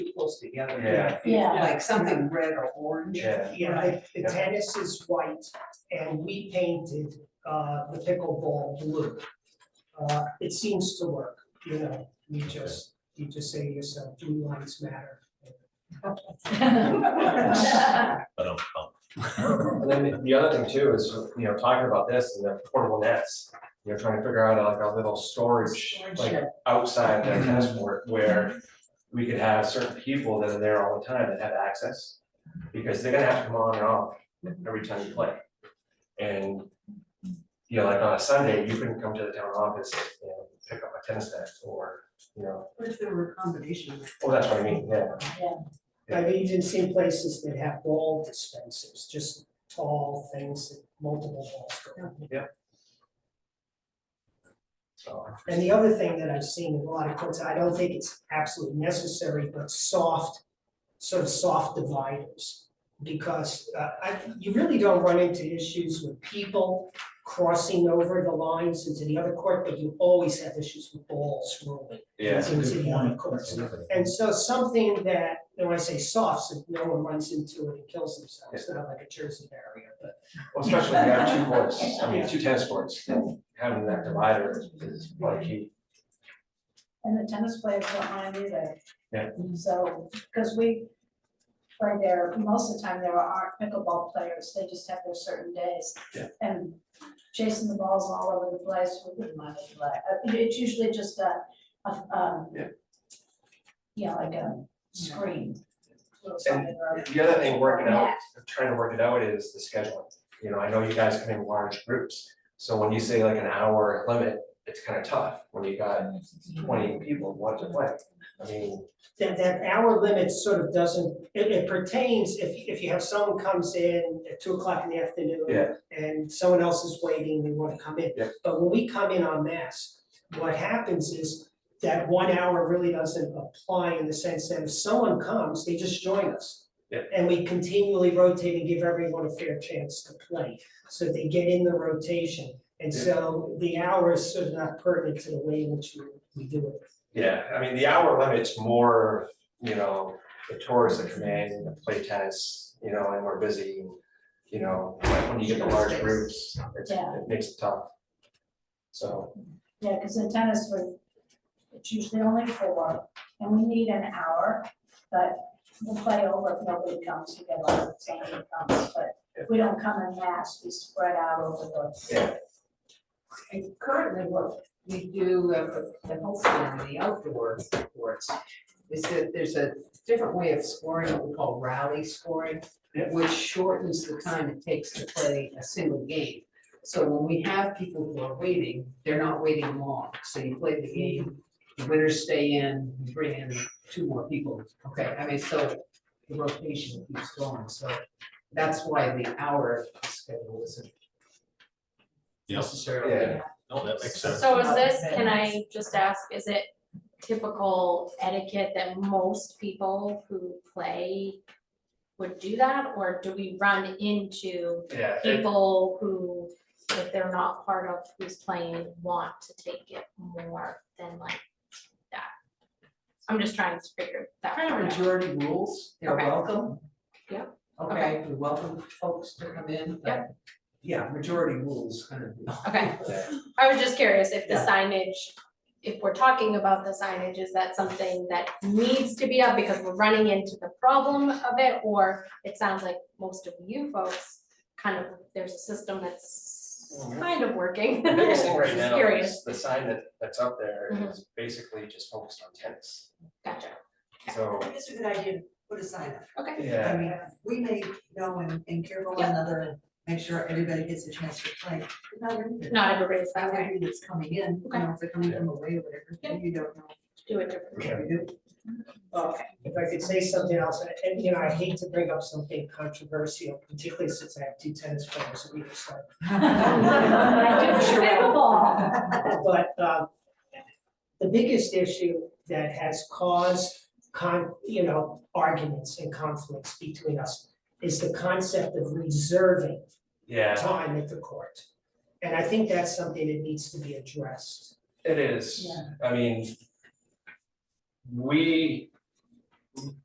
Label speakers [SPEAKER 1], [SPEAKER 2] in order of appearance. [SPEAKER 1] close together.
[SPEAKER 2] Yeah.
[SPEAKER 3] Yeah.
[SPEAKER 1] Like something red or orange.
[SPEAKER 2] Yeah.
[SPEAKER 4] Yeah, the- the
[SPEAKER 2] Yeah.
[SPEAKER 4] tennis is white and we painted uh the pickleball blue. Uh it seems to work, you know, you just, you just say to yourself, blue lives matter.
[SPEAKER 5] But um, um,
[SPEAKER 2] And then the other thing too is, you know, talking about this and the portable nets, you know, trying to figure out like a little storage, like outside the tennis court where we could have certain people that are there all the time that have access, because they're gonna have to come on and off every time you play. And, you know, like on a Sunday, you couldn't come to the town office and pick up a tennis net or, you know,
[SPEAKER 1] What if there were a combination of
[SPEAKER 2] oh, that's what I mean, yeah.
[SPEAKER 4] I've even seen places that have ball dispensers, just tall things, that multiple balls go. in.
[SPEAKER 2] So,
[SPEAKER 4] And the other thing that I've seen in a lot of courts, I don't think it's absolutely necessary, but soft, sort of soft dividers. Because uh I, you really don't run into issues with people crossing over the lines into the other court, but you always have issues with balls rolling
[SPEAKER 2] yeah,
[SPEAKER 4] into the other courts. And so something that, you know, I say soft, so no one runs into it and kills themselves, not like a Jersey barrier, but
[SPEAKER 2] well, especially if you have two courts, I mean, two tennis courts, then having that divider is- is like key.
[SPEAKER 3] And the tennis players don't mind either.
[SPEAKER 2] Yeah.
[SPEAKER 3] So, because we, right there, most of the time there are pickleball players, they just have their certain days.
[SPEAKER 2] Yeah.
[SPEAKER 3] And chasing the balls all over the place, we wouldn't mind it, like, uh, it- it's usually just a, a, um.
[SPEAKER 2] Yeah.
[SPEAKER 3] Yeah, like a screen, little something or other.
[SPEAKER 2] The other thing working out,
[SPEAKER 3] Mat.
[SPEAKER 2] trying to work it out is the scheduling. You know, I know you guys come in large groups, so when you say like an hour limit, it's kind of tough when you got twenty people wanting to play. I mean,
[SPEAKER 4] that that hour limit sort of doesn't, it it pertains if if you have someone comes in at two o'clock in the afternoon.
[SPEAKER 2] Yeah.
[SPEAKER 4] And someone else is waiting, they wanna come in.
[SPEAKER 2] Yeah.
[SPEAKER 4] But when we come in en masse, what happens is that one hour really doesn't apply in the sense that if someone comes, they just join us.
[SPEAKER 2] Yeah.
[SPEAKER 4] And we continually rotate and give everyone a fair chance to play, so they get in the rotation. And
[SPEAKER 2] Yeah.
[SPEAKER 4] so the hour is sort of not pertinent to the way in which we we do it.
[SPEAKER 2] yeah, I mean, the hour limit's more, you know, the tourists that come in and play tennis, you know, and we're busy. You know, like when you get the large groups, it's,
[SPEAKER 3] Yeah.
[SPEAKER 2] it makes it tough. So,
[SPEAKER 3] Yeah, because in tennis, we, it's usually only four, and we need an hour, but we'll play over if nobody comes, we get like somebody comes, but if we don't come in mass, we spread out over the.
[SPEAKER 2] yeah,
[SPEAKER 1] And currently what we do, uh, and hopefully on the outdoor courts, is that there's a different way of scoring, what we call rally scoring,
[SPEAKER 2] Yeah.
[SPEAKER 1] which shortens the time it takes to play a single game. So when we have people who are waiting, they're not waiting long, so you play the game, the winners stay in, you bring in two more people, okay, I mean, so the rotation keeps going, so that's why the hour schedule isn't
[SPEAKER 5] yeah,
[SPEAKER 1] necessarily.
[SPEAKER 2] yeah.
[SPEAKER 5] no, that makes sense.
[SPEAKER 6] So is this, can I just ask, is it typical etiquette that most people who play would do that, or do we run into
[SPEAKER 2] Yeah, it-
[SPEAKER 6] people who, if they're not part of who's playing, want to take it more than like that? I'm just trying to figure that
[SPEAKER 1] kind of
[SPEAKER 6] part out.
[SPEAKER 1] majority rules, they're
[SPEAKER 6] Okay.
[SPEAKER 1] welcome.
[SPEAKER 6] Yeah.
[SPEAKER 1] Okay, we welcome folks to come in, but yeah, majority rules kind of.
[SPEAKER 6] Okay,
[SPEAKER 2] Yeah.
[SPEAKER 6] I was just curious if the
[SPEAKER 1] Yeah.
[SPEAKER 6] signage, if we're talking about the signage, is that something that needs to be up because we're running into the problem of it? Or it sounds like most of you folks, kind of, there's a system that's kind of working.
[SPEAKER 2] The biggest thing right
[SPEAKER 6] Just
[SPEAKER 2] now
[SPEAKER 6] Curious,
[SPEAKER 2] is the sign that, that's up there
[SPEAKER 6] Mhm.
[SPEAKER 2] is basically just focused on tennis.
[SPEAKER 6] gotcha,
[SPEAKER 2] So,
[SPEAKER 7] It's a good idea to put a sign up.
[SPEAKER 6] okay,
[SPEAKER 7] I
[SPEAKER 2] yeah,
[SPEAKER 7] mean, we may go and, and care for one
[SPEAKER 6] Yeah.
[SPEAKER 7] another and make sure everybody gets a chance to play. But Not everybody.
[SPEAKER 6] not everybody's that
[SPEAKER 7] Not
[SPEAKER 6] way,
[SPEAKER 7] everybody that's coming in, you
[SPEAKER 6] Okay.
[SPEAKER 7] know, if they're coming from away or whatever,
[SPEAKER 6] Yeah.
[SPEAKER 7] you don't know.
[SPEAKER 6] do it different.
[SPEAKER 7] what we do.
[SPEAKER 4] Uh, if I could say something else, and- and you know, I hate to bring up something controversial, particularly since I have two tennis players on either side.
[SPEAKER 3] I do wish you had a ball.
[SPEAKER 4] But um, the biggest issue that has caused con, you know, arguments and conflicts between us is the concept of reserving
[SPEAKER 2] yeah,
[SPEAKER 4] time at the court. And I think that's something that needs to be addressed.
[SPEAKER 2] it is, I mean. We,